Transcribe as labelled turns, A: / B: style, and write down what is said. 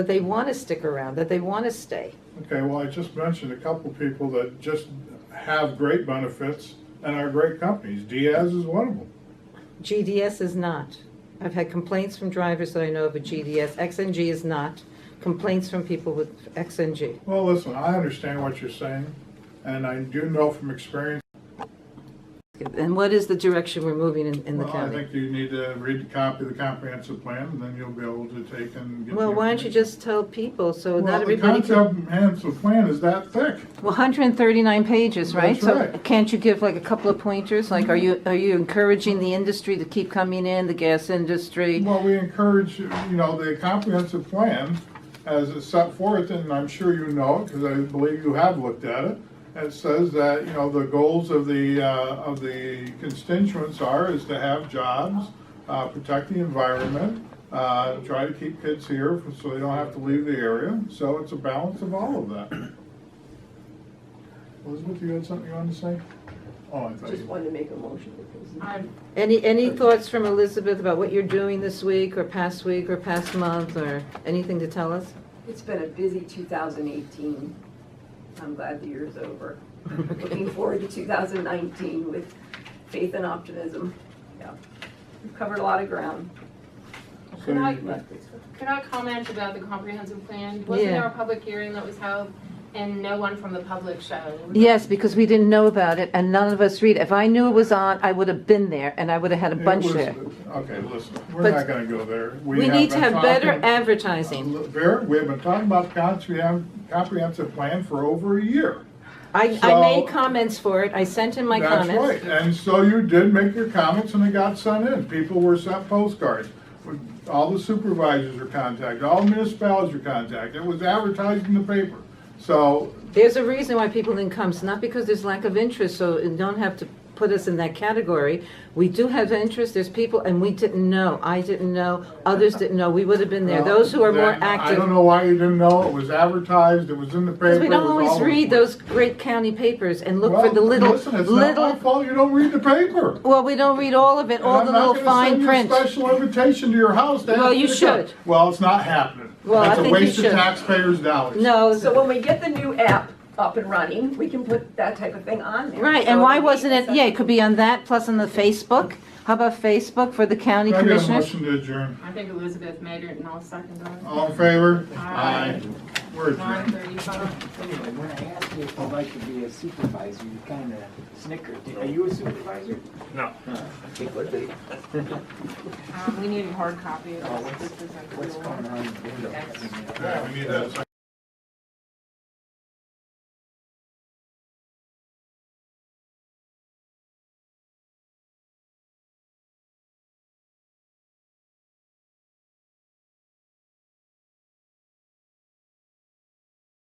A: that they want to stick around, that they want to stay.
B: Okay, well, I just mentioned a couple people that just have great benefits and are great companies. Diaz is one of them.
A: GDS is not. I've had complaints from drivers that I know of at GDS. XNG is not. Complaints from people with XNG.
B: Well, listen, I understand what you're saying, and I do know from experience.
A: And what is the direction we're moving in, in the
B: Well, I
A: county?
B: think you need to read the copy of the comprehensive plan, and then you'll be able to take and get.
A: Well,
B: the
A: why don't you
B: information.
A: just tell people so
B: Well,
A: not
B: the
A: everybody can.
B: comprehensive plan is that thick.
A: Well, 139 pages, right?
B: That's
A: So
B: right.
A: can't you give like a couple of pointers? Like, are you, are you encouraging the industry to keep coming in, the gas industry?
B: Well, we encourage, you know, the comprehensive plan as it's set forth, and I'm sure you know, because I believe you have looked at it. It says that, you know, the goals of the, uh, of the constituents are is to have jobs, uh, protect the environment, uh, try to keep kids here so they don't have to leave the area. So it's a balance of all of that. Elizabeth, you had something you wanted to say? Oh, I thought
C: Just
B: you.
C: wanted to make a motion because
D: I'm,
A: Any, any thoughts from Elizabeth about what you're doing this week or past week or past month or anything to tell us?
C: it's been a busy 2018. I'm glad the year's over. Looking forward to 2019 with faith and optimism. Yeah, We've covered a lot of ground.
B: So
D: could I,
B: you-
D: could I comment about the comprehensive plan? Wasn't
A: Yeah.
D: there a public hearing that was held and no one from the public showed?
A: Yes, because we didn't know about it and none of us read. it. If I knew it was on, I would have been there and I would have had a
B: It
A: bunch
B: was-
A: there.
B: Okay, listen, we're
A: But-
B: not gonna go there.
A: We need to
B: been
A: have better
B: talking-
A: advertising.
B: Uh, Vera, we have been talking about comprehen- comprehensive plan for over a year.
A: I, I made
B: So-
A: comments for it. I sent in my
B: That's
A: comments.
B: right. And so you did make your comments and they got sent in. People were sent postcards. All the supervisors were contacted, all municipalities were contacted. It was advertised in the paper. So
A: There's a reason why people didn't come. It's not because there's lack of interest, so you don't have to put us in that category. We do have interest, there's people, and we didn't know. I didn't know, others didn't know. We would have been there.
B: Well,
A: Those who are more
B: uh, then, I don't
A: active.
B: know why you didn't know. It was advertised, it was in the paper.
A: Because we
B: it
A: don't
B: was all
A: always
B: over the
A: read
B: place.
A: those great county papers and look for the
B: Well,
A: little,
B: Listen, it's not my
A: little,
B: fault you don't read the paper.
A: well, we don't read all of it, all
B: And
A: the
B: I'm not
A: little
B: gonna
A: fine
B: send you a
A: print.
B: Special invitation to your house. to
A: Well,
B: ask
A: you
B: to come.
A: should.
B: Well, it's not happening.
A: Well, I
B: It's a
A: think you
B: waste of
A: should.
B: taxpayers' dollars.
A: No,
C: So when we get the new app up and running, we can put that type of thing on there.
A: right,
C: So
A: and why
C: it'll be
A: wasn't it,
C: accessible.
A: yeah, it could be on that, plus on the Facebook. How about Facebook for the county
B: Can I get a
A: commissioners?
B: motion to adjourn.
D: I think Elizabeth made it and I'll second that.
B: All in favor?
D: Aye.
B: We're
D: Nine
B: adjourned.
D: thirty-five.
E: Anyway, when I asked you if I'd like to be a supervisor, you kind of snickered. Are you a supervisor?
F: No.
E: Hey, what the-
D: Um, we need a hard copy of
E: Oh, what's-
D: this. This is a
E: What's
D: cool
E: going
D: one.
E: on? in the window?
B: Okay, we need that.